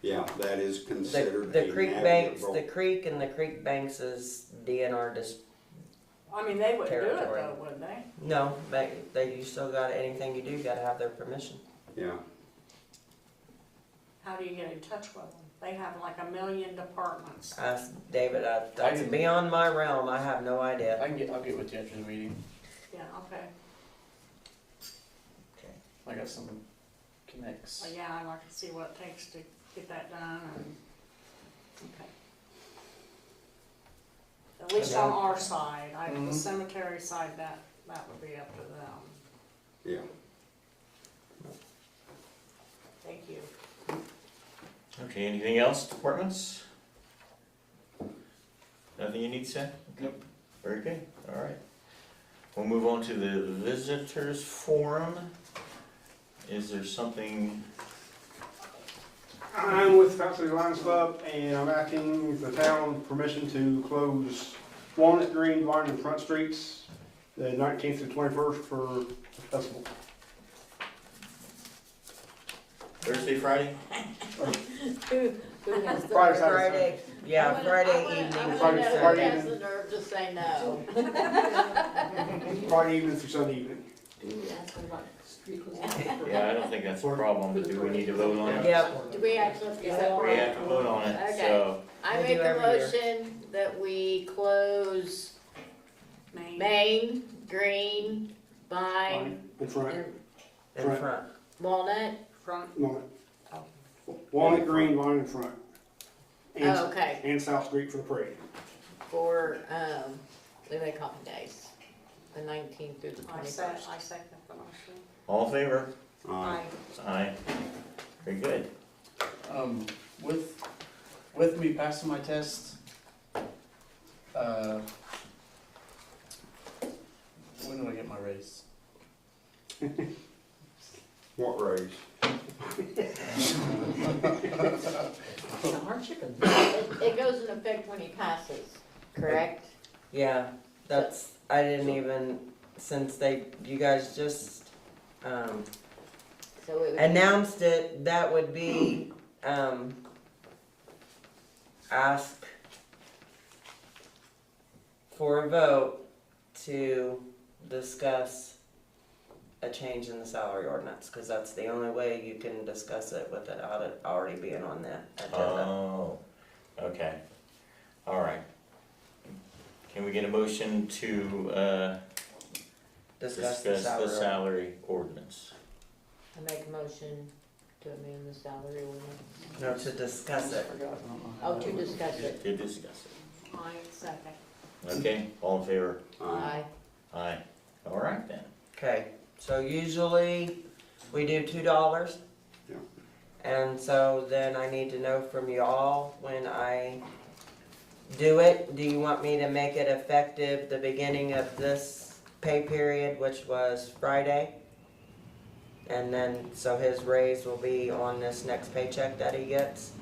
Yeah, that is The, considered the a creek banks, the navigable- creek and the creek banks is DNR dis, I mean, they wouldn't do it Territory. though, would they? no, but they, you still got, anything you do, you gotta have their permission. Yeah, How do you get in touch with them? They have like a million departments. I, David, I, that's can- beyond my realm, I have no idea. I can get, I'll get with you after the meeting. Yeah, okay. I got some connects. Well, yeah, I'd like to see what it takes to get that done and, okay. At least on our side, I, the Mhm. cemetery side, that, that would be up to them. yeah. Thank you. Okay, anything else, departments? Nothing you need to say? Nope. Very good, all right. We'll move on to the visitors forum. Is there something, I'm with Fountain City Lions Club, and I'm asking the town permission to close Walnut Green, Vine, and Front Streets the 19th through 21st for the festival. Thursday, Friday? Friday, Saturday, Friday, yeah, Friday evening. Friday- through Friday Sunday. evening. the nerve to say no. Sunday. Friday evening through Sunday evening. Yeah, I don't think that's a problem, but do we need to vote on it? Yep, Do we actually? Is that We have to vote on it, so, I We do make a every year. motion that we close Maine. Main, Green, Vine, Vine And Front, and in front. Walnut. Oh, Front, Walnut. Walnut Green, Vine, and Front. And- Oh, okay, And South Street for the parade. for, um, Leeway Coffin Days, the nineteenth through the I said, twenty-first. I second the motion. all in favor? Uh, Aye. Aye. Very good. Um, with, with me passing my test, uh, when do I get my raise? what raise? It, it goes into effect when he passes, correct? Yeah, that's, I didn't even, since they, you guys just, um, So it would, announced it, that would be, um, ask for a vote to discuss a change in the salary ordinance, cause that's the only way you can discuss it without it already being on the agenda. Oh, okay, all right. Can we get a motion to, uh, Discuss the discuss the salary. salary ordinance? I make a motion to amend the salary ordinance. No, to discuss I it. forgot. I don't know how Oh, that to works. discuss it, To discuss I second. it. Okay, all in favor? Uh, aye. Aye. All right then. Okay, so usually we do two dollars. Yeah. And so then I need to know from y'all when I do it, do you want me to make it effective the beginning of this pay period, which was Friday? And then, so his raise will be on this next paycheck that he gets?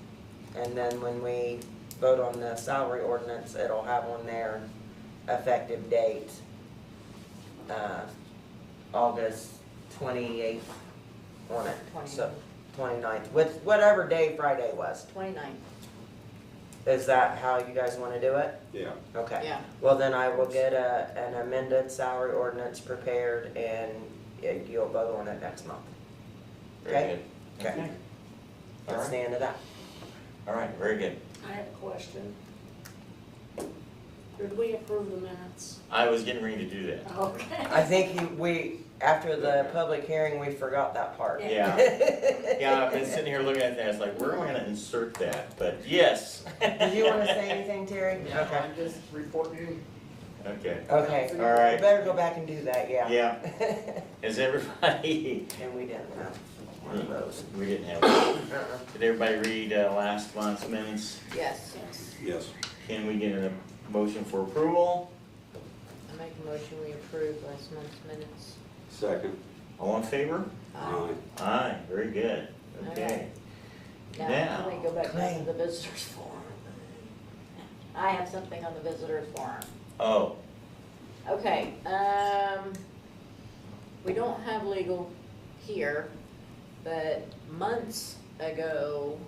And then when we vote on the salary ordinance, it'll have on their effective date. Uh, August twenty-eighth on it, so 29th, with whatever day Friday was. Twenty-nine, Is that how you guys want to do it? yeah, Okay. yeah. Well, then I will get a, an amended salary ordinance prepared and it- you'll vote on it next month. Very Okay? good. Okay. All That's the right, end of that. all right, very good. I have a question. Did we approve the minutes? I was getting ready to do that. Okay. I think he- we, after the public hearing, we forgot that part. Yeah, yeah, I've been sitting here looking at that, it's like, where am I gonna insert that? But yes. Did you want to say anything, Terry? Yeah, I'm just reporting. Okay, Okay. all We right, better go back and do that, yeah. yeah. Is everybody, And we didn't have one of those. we didn't have, Uh-uh. did everybody read uh, last month's minutes? Yes, Yes. yes. Can we get a motion for approval? I make a motion, we approve last month's minutes. Second, All in favor? aye. Aye, very good, okay. Now, let me go back down Claim. to the visitors forum. I have something on the visitors forum. Oh, Okay, um, we don't have legal here, but months ago,